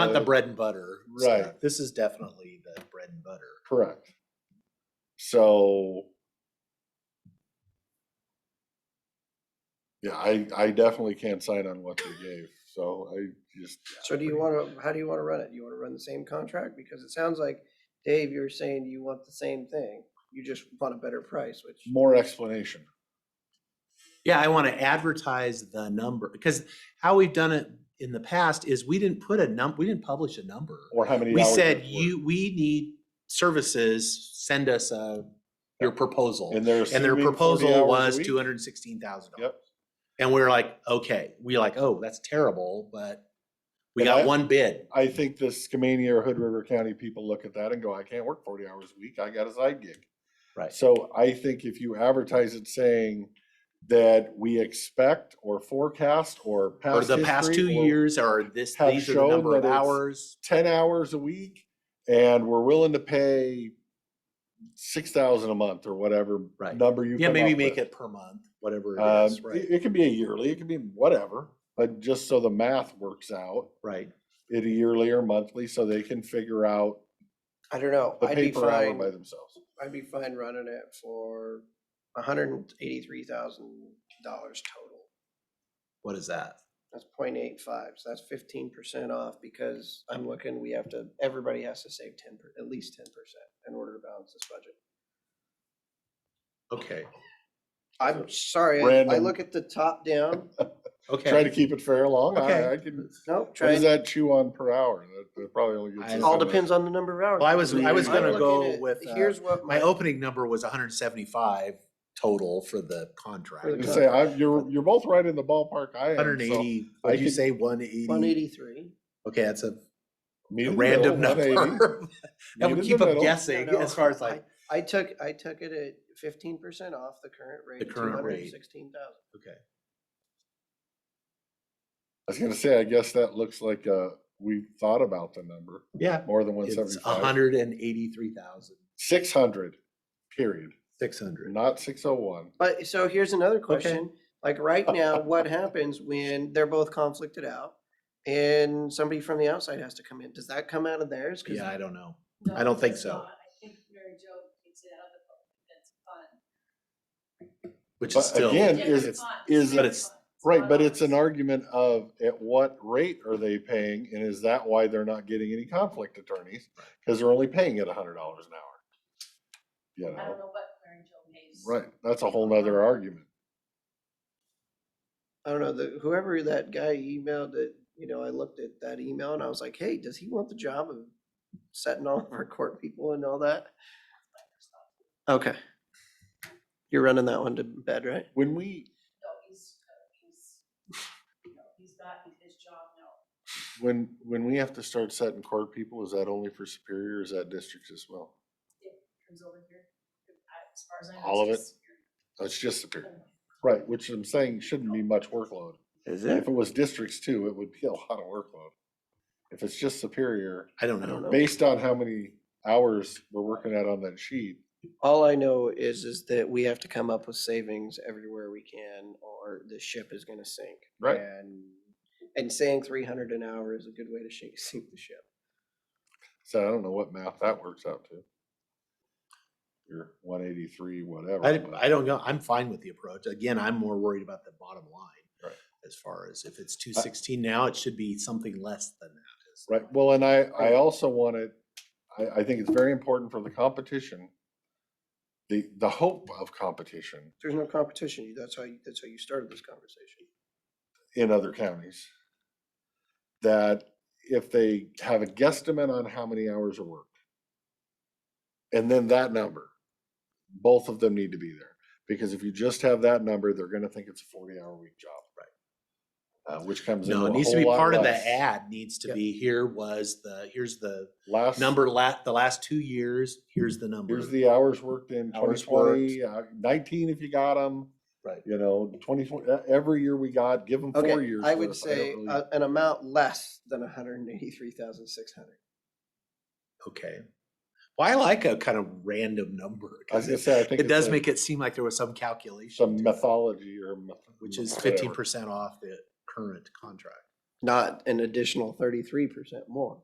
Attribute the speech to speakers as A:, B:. A: not the
B: Uh,
A: bread and butter.
B: right.
A: stuff. This is definitely the bread and butter.
B: Correct. So. Yeah, I, I definitely can't sign on what they gave, so I just,
C: So do you want to, how do you want to run it? You want to run the same contract? Because it sounds like, Dave, you're saying you want the same thing. You just want a better price, which,
B: more explanation.
A: Yeah, I want to advertise the number because how we've done it in the past is we didn't put a num, we didn't publish a number.
B: Or how many
A: We
B: hours
A: said,
B: it's worth.
A: you, we need services, send us a, your proposal.
B: And they're
A: And their
B: assuming 40 hours
A: proposal
B: a
A: was
B: week?
A: two hundred and sixteen thousand dollars.
B: Yep.
A: And we were like, okay, we like, oh, that's terrible, but we
B: And I-
A: got one bid.
B: I think the Skamania or Hood River County people look at that and go, I can't work forty hours a week, I got a side gig.
A: Right.
B: So I think if you advertise it saying that we expect or forecast or
A: Or
B: past
A: the past two
B: history or
A: years or this,
B: have
A: these are the
B: shown
A: number of
B: that it's-
A: hours.
B: ten hours a week and we're willing to pay six thousand a month or whatever
A: Right.
B: number you
A: Yeah,
B: come
A: maybe
B: up
A: make
B: with.
A: it per month, whatever it
B: Um,
A: is,
B: it,
A: right,
B: it can be a yearly, it can be whatever, but just so the math works out,
A: right.
B: it yearly or monthly, so they can figure out
C: I don't know.
B: the
C: I'd be
B: paper hour by
C: fine,
B: themselves.
C: I'd be fine running it for hundred and eighty-three thousand dollars total.
A: What is that?
C: That's 0.85, so that's fifteen percent off because I'm looking, we have to, everybody has to save ten, per- at least ten percent in order to balance this budget.
A: Okay,
C: I'm sorry, I- I
B: Random.
C: look at the top down,
B: Try
A: okay.
B: to keep it fair long.
A: Okay.
B: I, I can,
C: nope,
B: what
C: try,
B: does
C: it
B: that chew on per hour? That- That probably only gets.
A: I-
B: us
C: all
B: in the-
C: depends on the number of hours.
A: Well, I was-
B: I was
C: I'm
B: gonna
C: looking
A: go
C: at-
A: with, uh,
C: Here's what
A: My opening number was hundred and seventy-five total for the contract.
C: the
B: I was
C: contract.
B: gonna Say, I'm, you're, you're both right in the ballpark I am. so
A: Hundred and eighty,
B: I
A: would you
B: could-
A: say one eighty?
C: One eighty-three.
A: Okay, that's a
B: meet
A: a
B: in the
A: random
B: middle, 180,
A: number. That
B: meet in
A: would
B: the
A: keep them
B: middle.
A: guessing
C: No, no,
A: as far as like,
C: I I took, I took it at fifteen percent off the current rate.
A: The
C: of
A: current rate.
C: $216,000.
A: okay.
B: I was gonna say, I guess that looks like, uh, we thought about the number
A: Yeah,
B: more than one
A: it's a
B: seventy-five.
A: hundred and eighty-three thousand,
B: Six hundred, period,
A: six hundred.
B: not six oh one.
C: But, so here's another question, like, right now, what happens when they're both conflicted out? And somebody from the outside has to come in, does that come out of theirs? 'Cause
A: Yeah, I don't know.
D: No,
A: I don't think
D: it's
A: so.
D: not. I think Mary Jo takes it out of the book, that's fun.
A: Which
B: But
A: is still,
B: again,
D: Yeah,
B: is-
D: it's
A: it's-
D: fun.
B: is
A: But
D: really
A: it's-
D: fun.
B: Right,
D: not
B: but it's an
D: ours.
B: argument of at what rate are they paying and is that why they're not getting any conflict attorneys? Cause they're only paying at a hundred dollars an hour. You
D: I
B: know,
D: don't know what Mary Jo pays.
B: right, that's a whole nother argument.
C: I don't know, the, whoever that guy emailed that, you know, I looked at that email and I was like, hey, does he want the job of setting all of our court people and all that? Okay. You're running that one to bed, right?
B: When we,
D: No, he's, uh, he's, no, he's not in his job, no.
B: when, when we have to start setting court people, is that only for Superior or is that districts as well?
D: Comes over here, I- as far as I know.
B: All
D: it's
B: of it?
D: just
B: That's just Superior,
D: here.
B: right, which I'm saying shouldn't be much workload.
C: Is
B: If it was districts too, it would be a lot of workload. If it's just Superior,
A: I don't
C: I don't
A: know.
C: know.
B: based on how many hours we're working at on that sheet,
C: All I know is, is that we have to come up with savings everywhere we can, or the ship is gonna sink.
B: Right.
C: And, and saying three hundred an hour is a good way to shake, sink the ship.
B: So I don't know what math that works out to. Your one eighty-three, whatever.
A: I,
B: but-
A: I don't know. I'm fine with the approach. Again, I'm more worried about the bottom line.
B: Right.
A: As far as if it's two sixteen now, it should be something less than that. is-
B: Right, well, and I, I also want to, I, I think it's very important for the competition. The, the hope of competition
C: There's no competition, You that's how, you that's how you started this conversation.
B: in other counties. That if they have a guesstimate on how many hours are worked. And then that number, both of them need to be there, because if you just have that number, they're gonna think it's a forty-hour week job. Right. Uh, which comes in.
A: No, it needs to be part of the ad, needs to
C: Yep.
A: be here was the, here's the
B: Last.
A: number la, the last two years, here's the number.
B: Here's the hours worked in
A: Hours worked.
B: 2020, uh, 19 if you got them.
A: Right.
B: You know, 20, uh, every year we got, give them four
C: Okay,
B: years.
C: I
B: for
C: would
B: this. don't
C: say
B: really-
A: uh,
C: a- an amount less than hundred and eighty-three thousand six hundred.
A: Okay. Well, I like a kind of random number.
B: I was
A: 'cause
B: gonna
A: it-
B: say, I think.
A: It
B: it's
A: does
B: a-
A: make it seem like there was some calculation.
B: Some
A: to it,
B: mythology or. myth-
A: Which is
B: whatever.
A: fifteen percent off the current contract.
C: not an additional thirty-three percent more.